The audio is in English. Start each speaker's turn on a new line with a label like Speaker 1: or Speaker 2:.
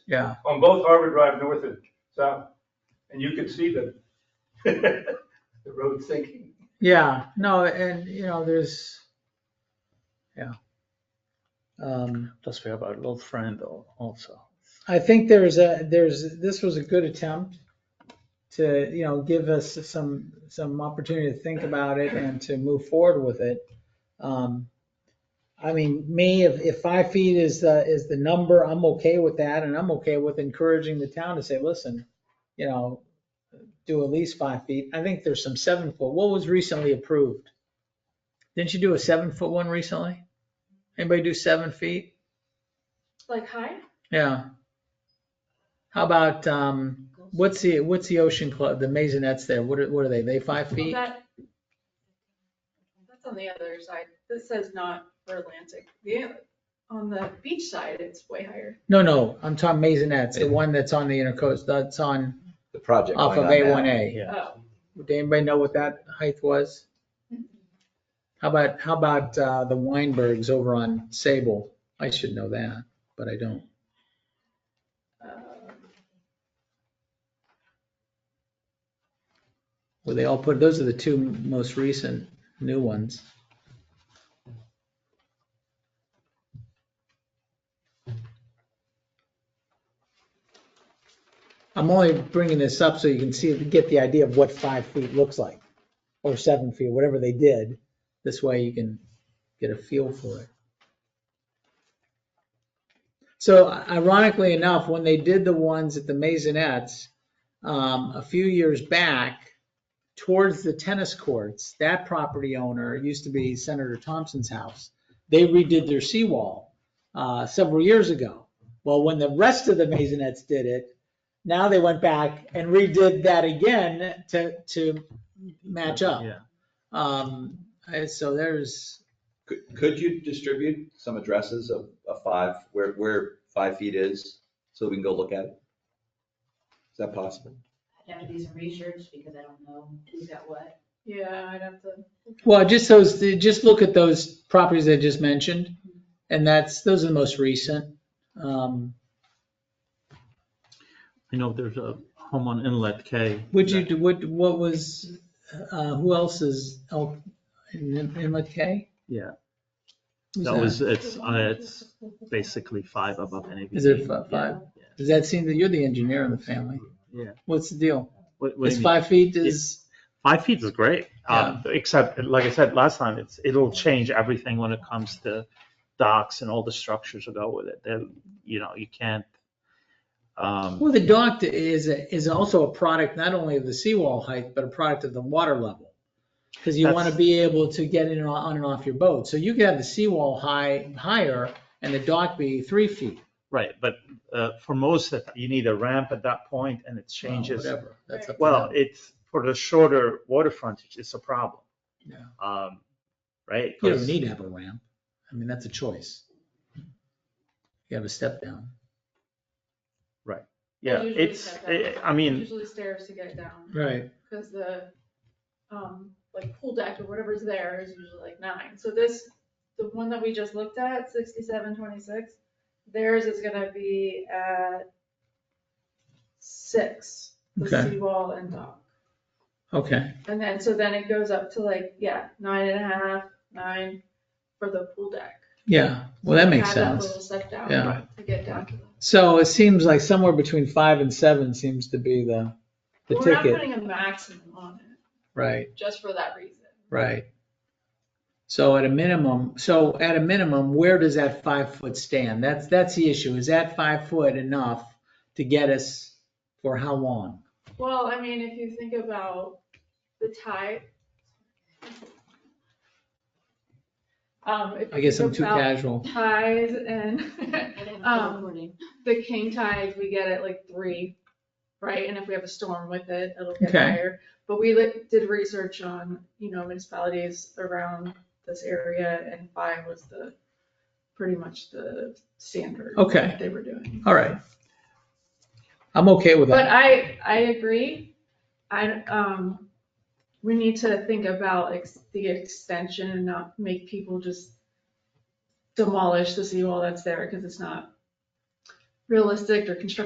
Speaker 1: Yeah,
Speaker 2: on both Harbor Drive, north and south, and you can see the, the road sinking.
Speaker 1: yeah, no, and you know, there's, yeah. Um,
Speaker 3: Plus, we have our little friend al- also.
Speaker 1: I think there's a, there's, this was a good attempt to, you know, give us some, some opportunity to think about it and to move forward with it. Um, I mean, me, if, if five feet is the, is the number, I'm okay with that, and I'm okay with encouraging the town to say, listen, you know, do at least five feet. I think there's some seven foot. What was recently approved? Didn't you do a seven foot one recently? Anybody do seven feet?
Speaker 4: Like high?
Speaker 1: Yeah. How about, um, what's the, what's the ocean club, the maisonettes there? What are, what are they? They five feet?
Speaker 4: That, that's on the other side. This says not for Atlantic. The, on the beach side, it's way higher.
Speaker 1: No, no, I'm talking maisonettes, the one that's on the inner coast, that's on,
Speaker 5: the project.
Speaker 1: off of
Speaker 5: line on that.
Speaker 1: A1A.
Speaker 3: Yeah.
Speaker 4: Oh,
Speaker 1: Would anybody know what that height was? How about, how about, uh, the Weinbergs over on Sable? I should know that, but I don't.
Speaker 4: um,
Speaker 1: Well, they all put, those are the two most recent new ones. I'm only bringing this up so you can see, get the idea of what five feet looks like, or seven feet, whatever they did. This way you can get a feel for it. So ironically enough, when they did the ones at the Maisonettes, um, a few years back, towards the tennis courts, that property owner it used to be Senator Thompson's house. They redid their seawall uh, several years ago. Well, when the rest of the Maisonettes did it, now they went back and redid that again to, to match up.
Speaker 3: Yeah.
Speaker 1: Um, and so there's,
Speaker 5: Could, could you distribute some addresses of, of five, where, where five feet is, so we can go look at it? Is that possible?
Speaker 6: I'd have to do some research because I don't know who's got what.
Speaker 4: Yeah, I'd have to.
Speaker 1: well, just those, just look at those properties I just mentioned. And that's, those are the most recent. Um,
Speaker 3: You know, there's a home on Inlet K.
Speaker 1: Would you,
Speaker 3: that-
Speaker 1: do what, what was, uh, who else is, oh, in- Inlet K?
Speaker 3: Yeah.
Speaker 1: Who's
Speaker 3: That was, it's, uh, it's basically five above any.
Speaker 1: Is it fi- five? Does that seem that you're the engineer in the family?
Speaker 3: Yeah.
Speaker 1: What's the deal?
Speaker 3: What, what do
Speaker 1: It's
Speaker 3: you mean?
Speaker 1: five feet is,
Speaker 3: Five feet is great, um, except, like I said last time, it's, it'll change everything when it comes to docks and all the structures that go with it. They're, you know, you can't, um,
Speaker 1: well, the dock is, is also a product not only of the seawall height, but a product of the water level. Because you want to
Speaker 3: That's-
Speaker 1: be able to get in and o- on and off your boat. So you could have the seawall high, higher and the dock be three feet.
Speaker 3: right, but, uh, for most, of it, you need a ramp at that point and it
Speaker 1: Well,
Speaker 3: changes.
Speaker 1: Whatever. That's up to
Speaker 3: Well,
Speaker 1: them.
Speaker 3: it's, for the shorter water frontage, it's a problem.
Speaker 1: Yeah.
Speaker 3: Um, right?
Speaker 1: You don't
Speaker 3: 'Cause-
Speaker 1: need to have a ramp. I mean, that's a choice. You have a step down.
Speaker 3: Yeah,
Speaker 4: Usually
Speaker 3: it's,
Speaker 4: step
Speaker 3: I
Speaker 4: down.
Speaker 3: I mean,
Speaker 4: Usually stairs to get down,
Speaker 1: Right.
Speaker 4: because the, um, like pool deck or whatever's there is usually like nine. So this, the one that we just looked at, sixty-seven twenty-six, theirs is gonna be at six, the
Speaker 1: Okay.
Speaker 4: seawall and dock.
Speaker 1: Okay.
Speaker 4: And then, so then it goes up to like, yeah, nine and a half, nine for the pool deck.
Speaker 1: Yeah. Well, that makes
Speaker 4: Add
Speaker 1: sense.
Speaker 4: Little step down
Speaker 1: Yeah.
Speaker 4: to get down to the.
Speaker 1: So it seems like somewhere between five and seven seems to be the, the
Speaker 4: We're not
Speaker 1: ticket.
Speaker 4: putting a maximum on
Speaker 1: Right,
Speaker 4: it, just for that reason.
Speaker 1: right. So at a minimum, so at a minimum, where does that five foot stand? That's, that's the issue. Is that five foot enough to get us for how long?
Speaker 4: Well, I mean, if you think about the tide. Um, if
Speaker 1: I guess
Speaker 4: you
Speaker 1: I'm
Speaker 4: think
Speaker 1: too
Speaker 4: about
Speaker 1: casual.
Speaker 4: tides and
Speaker 6: I didn't
Speaker 4: Um,
Speaker 6: recording.
Speaker 4: the king tides, we get at like three, right? And if we have a storm with it, it'll get
Speaker 1: Okay.
Speaker 4: higher. But we li- did research on, you know, municipalities around this area and five was the, pretty much the standard.
Speaker 1: Okay.
Speaker 4: that They were doing.
Speaker 1: All right. I'm okay with
Speaker 4: But
Speaker 1: that.
Speaker 4: I, I agree. I, um, we need to think about ex- the extension and not make people just demolish the seawall that's there because it's not realistic or constructive